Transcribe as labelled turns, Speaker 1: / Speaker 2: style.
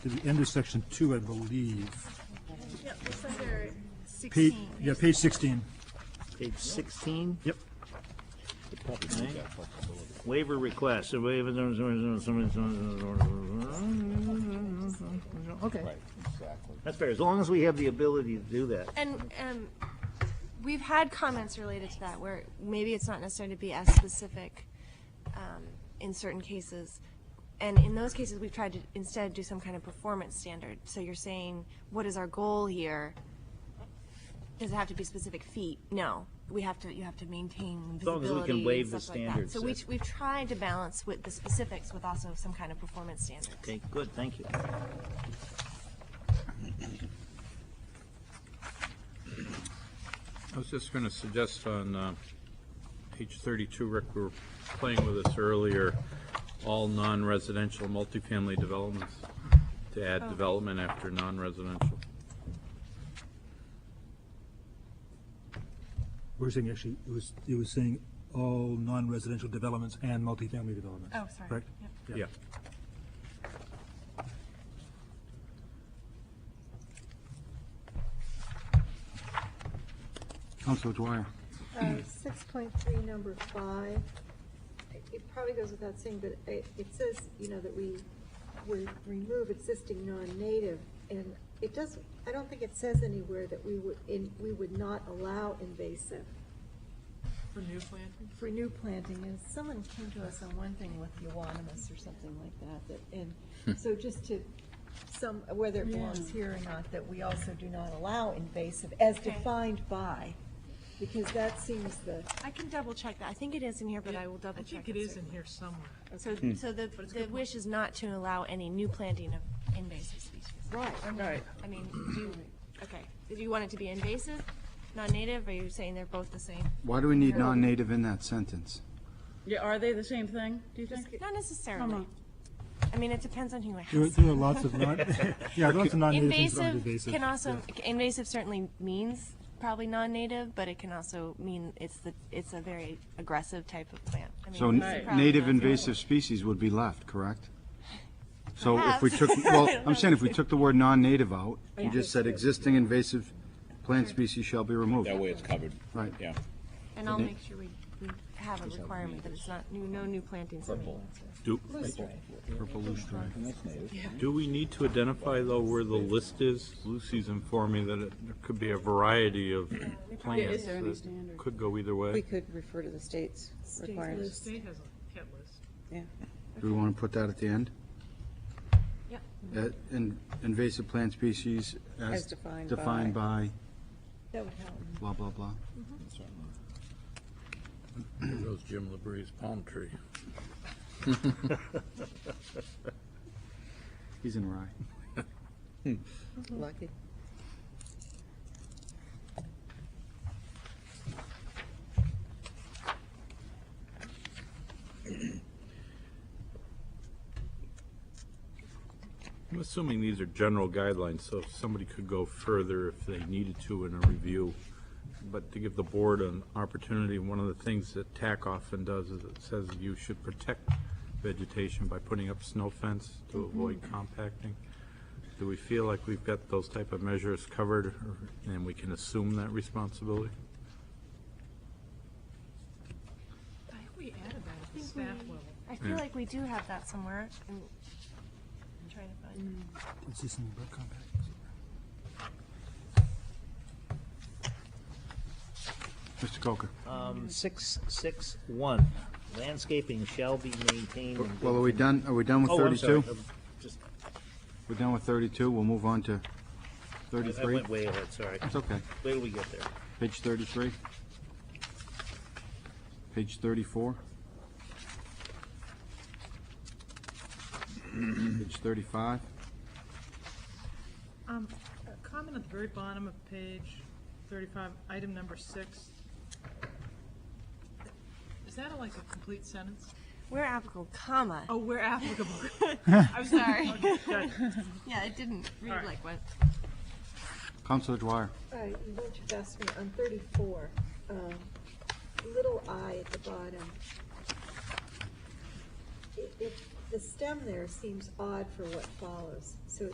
Speaker 1: to the end of section two, I believe.
Speaker 2: Yep, it's under
Speaker 1: Page,
Speaker 2: 16.
Speaker 1: yeah, page sixteen.
Speaker 3: Page 16,
Speaker 1: Yep.
Speaker 3: right? Waiver request, a waiver, okay. That's fair, as long as we have the ability to do that.
Speaker 2: And um, we've had comments related to that where maybe it's not necessary to be as specific um, in certain cases. And in those cases, we've tried to instead do some kind of performance standard. So you're saying, what is our goal here? Does it have to be specific feet? No, we have to, you have to maintain
Speaker 3: long as we can
Speaker 2: visibility
Speaker 3: waive
Speaker 2: and
Speaker 3: the
Speaker 2: stuff like that.
Speaker 3: standards,
Speaker 2: So we,
Speaker 3: that's-
Speaker 2: we've tried to balance with the specifics with also some kind of performance standard.
Speaker 3: Okay, good, thank you.
Speaker 4: I was just going to suggest on uh, page 32, Rick, we were playing with this earlier, all non-residential multifamily developments, to add development after non-residential.
Speaker 1: We're saying actually, it was, it was saying all non-residential developments and multifamily developments.
Speaker 2: Oh, sorry.
Speaker 1: Correct?
Speaker 2: Yep.
Speaker 4: Yeah.
Speaker 1: Counselor Dwyer.
Speaker 5: Uh, Six point three, number five, it- it probably goes without saying, but it, it says, you know, that we would remove existing non-native, and it does, I don't think it says anywhere that we would, in, we would not allow invasive
Speaker 6: For new planting?
Speaker 5: for new planting, and someone came to us on one thing with euonymus or something like that, that, and, so just to, some, whether it belongs here or not, that we also do not allow invasive, as
Speaker 2: Okay.
Speaker 5: defined by, because that seems the.
Speaker 2: I can double check that. I think it is in here, but I will double check.
Speaker 6: I think it
Speaker 2: and
Speaker 6: is in
Speaker 2: certainly.
Speaker 6: here somewhere.
Speaker 2: So,
Speaker 7: Hmm.
Speaker 2: so the, the wish is not to allow any new planting of invasive species?
Speaker 5: Right.
Speaker 2: Right. I mean, do you, okay, do you want it to be invasive, non-native, or are you saying they're both the same?
Speaker 7: Why do we need non-native in that sentence?
Speaker 8: Yeah, are they the same thing, do you think?
Speaker 2: Not necessarily. I mean, it depends on who
Speaker 1: There are,
Speaker 2: asks.
Speaker 1: there are lots of non, yeah, lots of non-native things that aren't
Speaker 2: Invasive
Speaker 1: invasive.
Speaker 2: can also, invasive certainly means probably non-native, but it can also mean it's the, it's a very aggressive type of plant. I mean,
Speaker 7: So
Speaker 2: it's
Speaker 7: n-
Speaker 2: probably
Speaker 7: native
Speaker 2: not the-
Speaker 7: invasive species would be left, correct? So if we took,
Speaker 2: Perhaps.
Speaker 7: well, I'm saying if we took the word non-native out, you just said existing invasive plant species shall be removed.
Speaker 9: That way it's covered.
Speaker 7: Right.
Speaker 9: Yeah.
Speaker 2: And I'll make sure we, we have a requirement that it's not, new- no new plantings. Purple.
Speaker 4: Do,
Speaker 7: Purple loosestrife.
Speaker 4: do we need to identify, though, where the list is? Lucy's informed me that it there could be a variety of plants
Speaker 8: there any
Speaker 4: that
Speaker 8: standard?
Speaker 4: could go either
Speaker 10: We
Speaker 4: way.
Speaker 10: could refer to the state's
Speaker 6: The
Speaker 10: requirements.
Speaker 6: state has a hit list.
Speaker 7: Do we want to put that at the end?
Speaker 2: Yep.
Speaker 7: Uh, in- Invasive plant species as
Speaker 10: As defined by-
Speaker 7: defined by
Speaker 5: That would help.
Speaker 7: blah, blah, blah.
Speaker 4: There goes Jim Labree's palm tree.
Speaker 7: He's in rye.
Speaker 10: Lucky.
Speaker 4: I'm assuming these are general guidelines, so somebody could go further if they needed to in a review. But to give the board an opportunity, one of the things that TAC often does is it says you should protect vegetation by putting up snow fence to avoid compacting. Do we feel like we've got those type of measures covered or- and we can assume that responsibility?
Speaker 6: I think we added that at the staff level.
Speaker 2: I feel like we do have that somewhere. I'm I'm trying to find.
Speaker 1: It's just in the book compact.
Speaker 7: Mr. Coker.
Speaker 3: Um, Six, six, one, landscaping shall be maintained. in good
Speaker 7: Well, are we done, are we done with
Speaker 3: Oh, I'm sorry.
Speaker 7: 32?
Speaker 3: Um, Just,
Speaker 7: We're done with 32, we'll move on to
Speaker 3: I
Speaker 7: 33.
Speaker 3: went way ahead, sorry.
Speaker 7: It's okay.
Speaker 3: Where do we get there?
Speaker 7: Page 33. Page 34. Page 35.
Speaker 6: Um, a comment at the very bottom of page thirty-five, item number six. Is that like a complete sentence?
Speaker 2: Where applicable, comma.
Speaker 6: Oh, we're applicable. I was sorry.
Speaker 2: Yeah, it didn't read
Speaker 6: Alright.
Speaker 2: like what.
Speaker 7: Counselor Dwyer.
Speaker 5: Uh, You went too fast for me. On 34, um, little i at the bottom. It- it- The stem there seems odd for what follows. So